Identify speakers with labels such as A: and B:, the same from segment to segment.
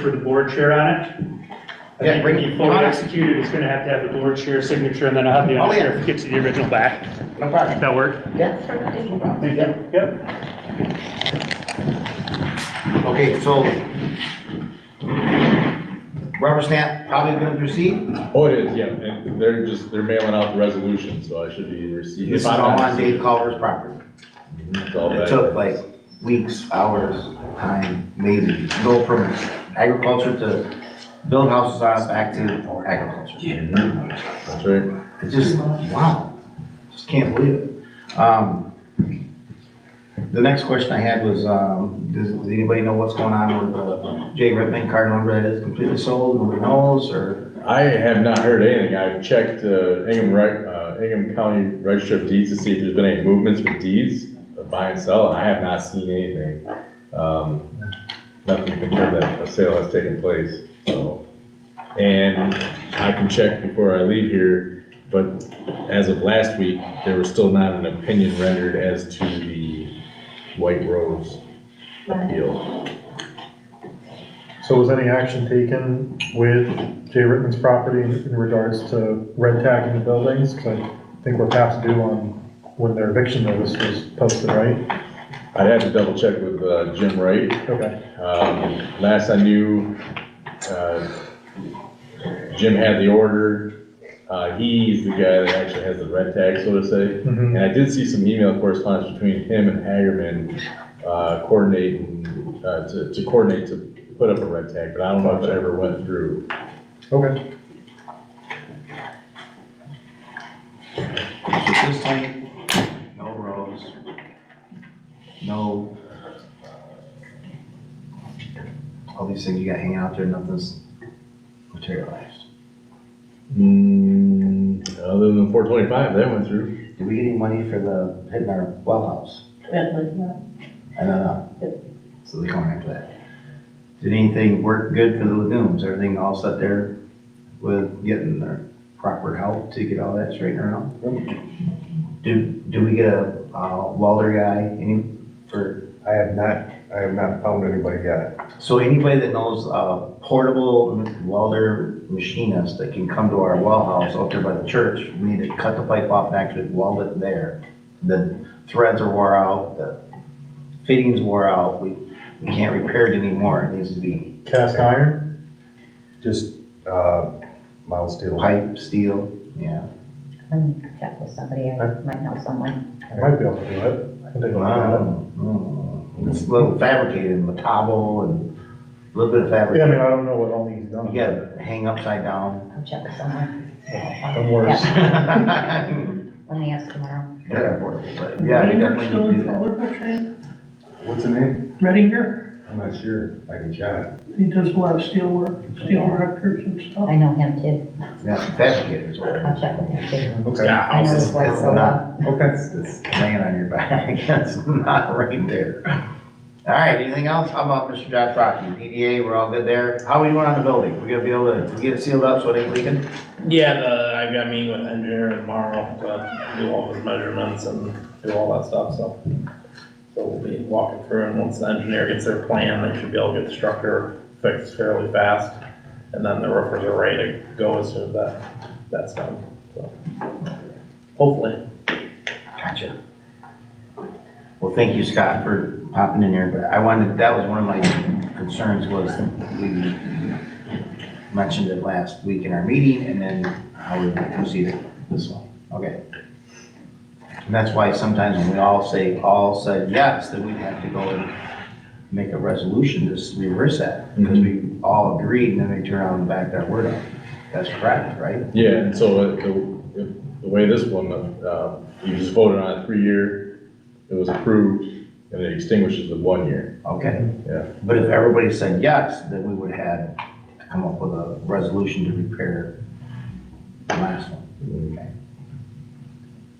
A: for the board chair on it. I
B: Yeah,
A: think
B: bring
A: when
B: it
A: you fully
B: on.
A: execute it, it's gonna have to have the board chair signature, and then I'll have the
B: Oh, yeah.
A: undersheriff get you the original back.
B: No problem.
A: That work?
B: Yeah. Yeah.
A: Yep.
B: Okay, so rubber stamp, probably gonna proceed.
C: Oh, it is, yeah, and they're just, they're mailing out the resolution, so I should be receiving.
B: It's all on Dave Culver's property.
C: It's all
B: It
C: back.
B: took like weeks, hours, time, maybe, go from agriculture to build houses on it back to agriculture.
C: That's right.
B: It's just, wow, just can't believe it. Um, The next question I had was, um, does does anybody know what's going on with uh, Jay Redman, Cardinal Red is completely sold, nobody knows, or?
C: I have not heard anything, I've checked, uh, Ingham, Reg- uh, Ingham County Register of Deeds to see if there's been any movements with deeds, of buy and sell, and I have not seen anything. Um, nothing to confirm that a sale has taken place, so. And I can check before I leave here, but as of last week, there was still not an opinion rendered as to the White Rose appeal.
D: So was any action taken with Jay Rittman's property in regards to red tagging the buildings? Because I think we're past due on when their eviction notice was posted, right?
C: I'd have to double check with uh, Jim Wright.
D: Okay,
C: Um, Last I knew, uh, Jim had the order. Uh, He's the guy that actually has the red tag, so to say.
D: Mhm.
C: And I did see some email correspondence between him and Hagerman uh, coordinating, uh, to to coordinate to put up a red tag, but I don't know if it ever went through.
D: okay.
B: So this thing, no roads, no. All these things you got hanging out there, nothing's materialized.
C: Hmm, Other than 425, that went through.
B: Did we get any money for the, hitting our well house?
E: Redmond,
B: I don't know. So they're coming after that. Did anything work good for the lagoons? Everything all set there with getting the proper help to get all that straightened out? Do, do we get a uh, welder guy, any, for
F: I have not, I have not found anybody yet.
B: So anybody that knows uh, portable welder machinists that can come to our well house out there by the church, we need to cut the pipe off and actually weld it there. The threads are wore out, the fittings wore out, we, we can't repair it anymore, it needs to be
D: Cast iron?
F: Just, uh, mild steel.
B: pipe, steel, yeah.
E: I need to check with somebody, I might know someone.
D: I might be able to do it. I can take a look at it.
B: Mm,
D: Mm-hmm.
B: It's a little fabricated, metabo and a little bit of
D: Yeah, I mean,
B: fabric.
D: I don't know what all needs done.
B: You gotta hang upside down.
E: I'll check with someone.
D: Don't worry.
E: Yeah,
B: Yeah,
E: Let me ask tomorrow.
B: portable, but yeah, we definitely need to do that.
F: What's the name?
G: Reddinger,
F: I'm not sure. I can chat.
G: he does a lot of steel work, steel directors and stuff.
E: I know him too.
B: Yeah, fabricators or.
E: I'll check with him too.
F: Okay.
E: I know his wife so well.
F: Okay.
B: It's, it's laying on your back, it's not right there. All right, anything else? How about Mr. Josh Rocky, PDA, we're all good there? How we doing on the building? We gonna be able to get it sealed up so it ain't leaking?
H: Yeah, the, I've got a meeting with engineer tomorrow to do all his measurements and do all that stuff, so. So we'll be walking through and once the engineer gets their plan, they should be able to get the structure fixed fairly fast. And then the roofers are ready to go as soon as that, that's done, so. Hopefully.
B: Gotcha. Well, thank you, Scott, for popping in here, but I wanted, that was one of my concerns was we mentioned it last week in our meeting and then how we proceeded this one. Okay. And that's why sometimes when we all say, all said yes, then we'd have to go and make a resolution to s- reverse that. Because we all agreed and then they turn around and back that word up. That's correct, right?
C: Yeah, and so uh, the, the way this one, uh, you just voted on a three-year, it was approved, and it extinguishes the one year.
B: Okay.
C: Yeah.
B: But if everybody said yes, then we would have to come up with a resolution to repair the last one. Okay.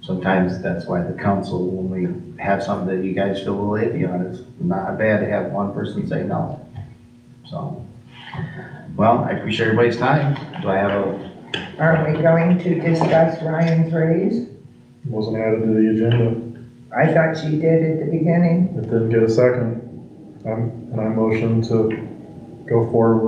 B: Sometimes that's why the council, when we have something that you guys feel will iffy on, it's not bad to have one person say no. So, well, I appreciate everybody's time. Do I have a,
I: Aren't we going to discuss Ryan's raise?
D: Wasn't added to the agenda.
I: I thought she did at the beginning.
D: It didn't get a second. I'm, and I motion to go forward with